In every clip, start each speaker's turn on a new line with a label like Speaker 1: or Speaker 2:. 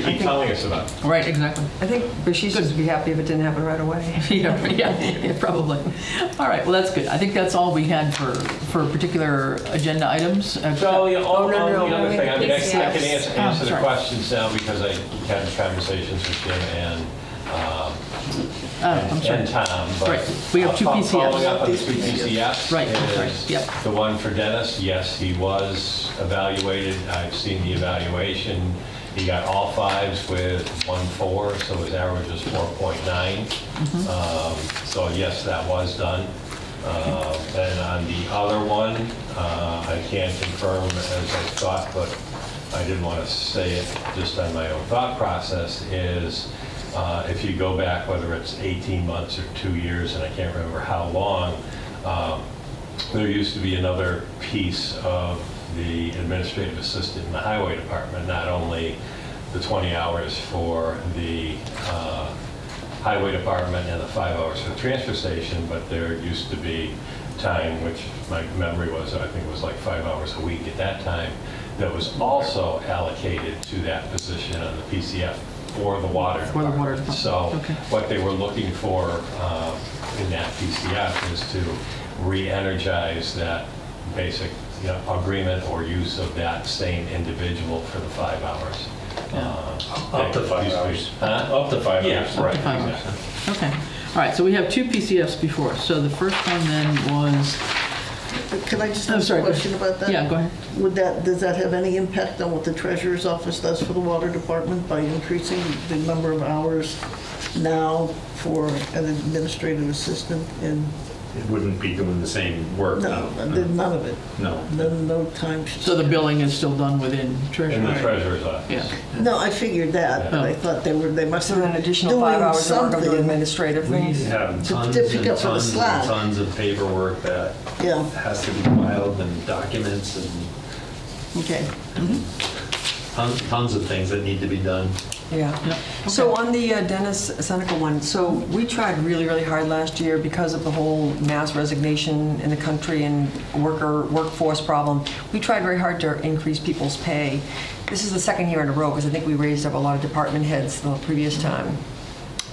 Speaker 1: You keep telling us about. it.
Speaker 2: Right, exactly.
Speaker 3: I think Rashish would be happy if it didn't happen right away.
Speaker 2: Yeah, yeah, yeah, probably. All right, well, that's good. I think that's all we had for, for particular agenda items. Uh,
Speaker 1: So, yeah, all,
Speaker 3: Oh, no,
Speaker 1: all
Speaker 3: no,
Speaker 1: the other
Speaker 3: wait,
Speaker 1: thing, I mean, I I
Speaker 4: yes,
Speaker 1: can
Speaker 4: yes.
Speaker 1: answer,
Speaker 2: Oh,
Speaker 1: answer the
Speaker 2: sorry.
Speaker 1: questions now because I had conversations with Jim and, um,
Speaker 2: Oh, I'm
Speaker 1: and and
Speaker 2: sorry.
Speaker 1: Tom, but.
Speaker 2: Right, we have two
Speaker 1: Fo-
Speaker 2: PCFs.
Speaker 1: Following up on the two PCFs.
Speaker 2: Right, that's right,
Speaker 1: is
Speaker 2: yep.
Speaker 1: The one for Dennis, yes, he was evaluated, I've seen the evaluation. He got all fives with one four, so his average was 4.9.
Speaker 2: Mm-hmm.
Speaker 1: Um, So yes, that was done. Um, And on the other one, uh, I can't confirm as I thought, but I didn't want to say it just on my own thought process, is uh, if you go back, whether it's 18 months or two years, and I can't remember how long, um, there used to be another piece of the administrative assistant in the highway department, not only the 20 hours for the uh, highway department and the five hours for the transfer station, but there used to be time, which my memory was, I think it was like five hours a week at that time, that was also allocated to that position on the PCF for the water
Speaker 2: For the water department,
Speaker 1: So
Speaker 2: okay.
Speaker 1: what they were looking for um, in that PCF is to re-energize that basic you know, agreement or use of that same individual for the five hours. Uh,
Speaker 5: Up to five
Speaker 1: that used be-
Speaker 5: hours.
Speaker 1: Huh?
Speaker 5: Up to five
Speaker 1: Yeah,
Speaker 5: years.
Speaker 1: right,
Speaker 2: Five hours.
Speaker 1: exactly.
Speaker 2: Okay. All right, so we have two PCFs before. us. So the first one then was,
Speaker 6: Can I just
Speaker 2: I'm
Speaker 6: ask
Speaker 2: sorry,
Speaker 6: a
Speaker 2: go ahead.
Speaker 6: question about that?
Speaker 2: yeah, go ahead.
Speaker 6: Would that, does that have any impact on what the treasurer's office does for the water department by increasing the number of hours now for an administrative assistant and,
Speaker 5: It wouldn't be doing the same work.
Speaker 6: no, then none of it,
Speaker 5: No.
Speaker 6: no, no time. sh-
Speaker 2: So the billing is still done within
Speaker 1: In the
Speaker 2: Treasury?
Speaker 1: treasurer's office.
Speaker 2: Yeah.
Speaker 6: No, I figured that,
Speaker 2: Oh.
Speaker 6: but I thought they were, they must
Speaker 3: So
Speaker 6: have
Speaker 3: then
Speaker 6: been
Speaker 3: an
Speaker 6: doing
Speaker 3: additional five hours of work on the
Speaker 6: something.
Speaker 3: administrative
Speaker 5: We
Speaker 3: things.
Speaker 5: have
Speaker 6: To- to
Speaker 5: tons
Speaker 6: pick
Speaker 5: and
Speaker 6: up for the
Speaker 5: tons
Speaker 6: slack.
Speaker 5: and tons of paperwork that
Speaker 6: Yeah.
Speaker 5: has to be filed and documents and
Speaker 3: Okay,
Speaker 5: ton- tons of things that need to be done.
Speaker 3: yeah.
Speaker 2: Yep.
Speaker 3: So on the uh, Dennis Seneca one, so we tried really, really hard last year because of the whole mass resignation in the country and worker, workforce problem. We tried very hard to increase people's pay. This is the second year in a row, because I think we raised up a lot of department heads the previous time.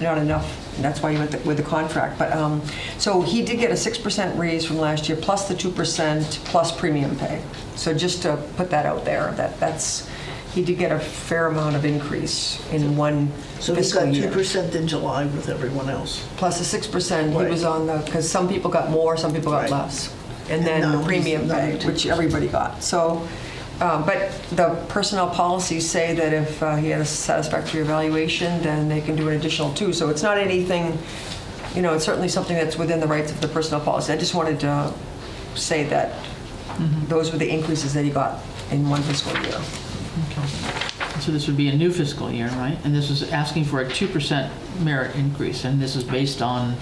Speaker 3: Not enough, and that's why you went with the contract. But, um, so he did get a 6% raise from last year, plus the 2%, plus premium pay. So just to put that out there, that, that's, he did get a fair amount of increase in one
Speaker 6: So he's
Speaker 3: fiscal
Speaker 6: got
Speaker 3: year.
Speaker 6: two percent in July with everyone else.
Speaker 3: Plus the 6%, he
Speaker 6: Right.
Speaker 3: was on the, because some people got more, some people got
Speaker 6: Right.
Speaker 3: less. And then
Speaker 6: No,
Speaker 3: the
Speaker 6: he's
Speaker 3: premium
Speaker 6: not
Speaker 3: pay,
Speaker 6: at
Speaker 3: which everybody got. So, uh, but the personnel policies say that if uh, he had a satisfactory evaluation, then they can do an additional two. So it's not anything, you know, it's certainly something that's within the rights of the personnel policy. I just wanted to say that
Speaker 2: Mm-hmm.
Speaker 3: those were the increases that he got in one fiscal year.
Speaker 2: So this would be a new fiscal year, right? And this is asking for a 2% merit increase, and this is based on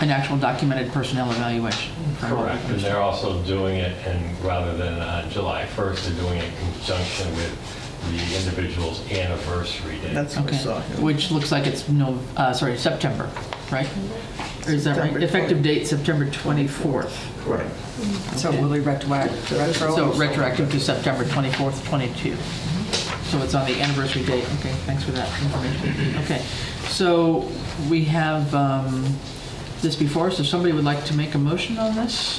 Speaker 2: an actual documented personnel evaluation.
Speaker 1: Correct, and they're also doing it, and rather than on July 1st, they're doing it in conjunction with the individual's anniversary date.
Speaker 6: That's what I
Speaker 2: Okay,
Speaker 6: saw.
Speaker 2: which looks like it's no, uh, sorry, September, right? Or is that right?
Speaker 6: September
Speaker 2: Effective date, September 24th.
Speaker 6: Right.
Speaker 3: So
Speaker 2: Okay.
Speaker 3: will he retroact- retro?
Speaker 2: So retroactive to September 24th, 22. So it's on the anniversary date. Okay, thanks for that information. Okay, so we have um, this before us. If somebody would like to make a motion on this?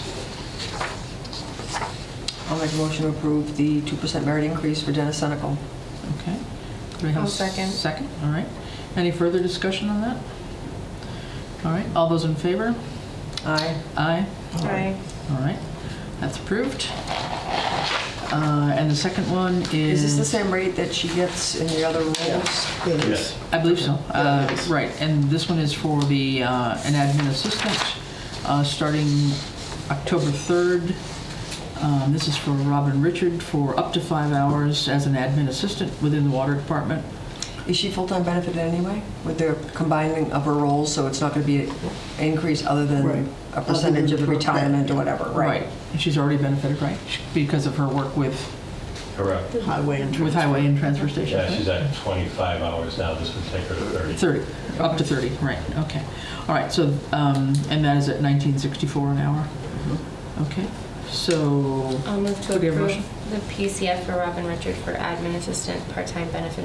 Speaker 3: I'll make a motion to approve the 2% merit increase for Dennis Senical.
Speaker 2: Okay. Do we have a
Speaker 4: I'll second.
Speaker 2: Second, all right. Any further discussion on that? All right, all those in favor?
Speaker 3: Aye.
Speaker 2: Aye.
Speaker 4: Aye.
Speaker 2: All right, that's approved. Uh, And the second one
Speaker 3: Is
Speaker 2: is...
Speaker 3: this the same rate that she gets in the other roles?
Speaker 1: Yes,
Speaker 2: I believe so. Uh, Right, and this one is for the, uh, an admin assistant, uh, starting October 3rd. Um, This is for Robin Richard for up to five hours as an admin assistant within the water department.
Speaker 3: Is she full-time benefited anyway with the combining of her roles, so it's not going to be an increase other
Speaker 6: Right.
Speaker 3: than a percentage of the
Speaker 6: Other than-
Speaker 3: retirement or whatever, right?
Speaker 2: And she's already benefited, right? Because of her work with,
Speaker 1: correct.
Speaker 6: Highway and.
Speaker 2: with highway and transfer stations,
Speaker 1: Yeah,
Speaker 2: right?
Speaker 1: she's at 25 hours now, this would take her to 30.
Speaker 2: 30, up to 30, right, okay. All right, so, um, and that is at 1964 an hour? Okay, so...
Speaker 4: I'll move to
Speaker 2: Could we have a
Speaker 4: approve the PCF for Robin Richard for admin assistant, part-time benefit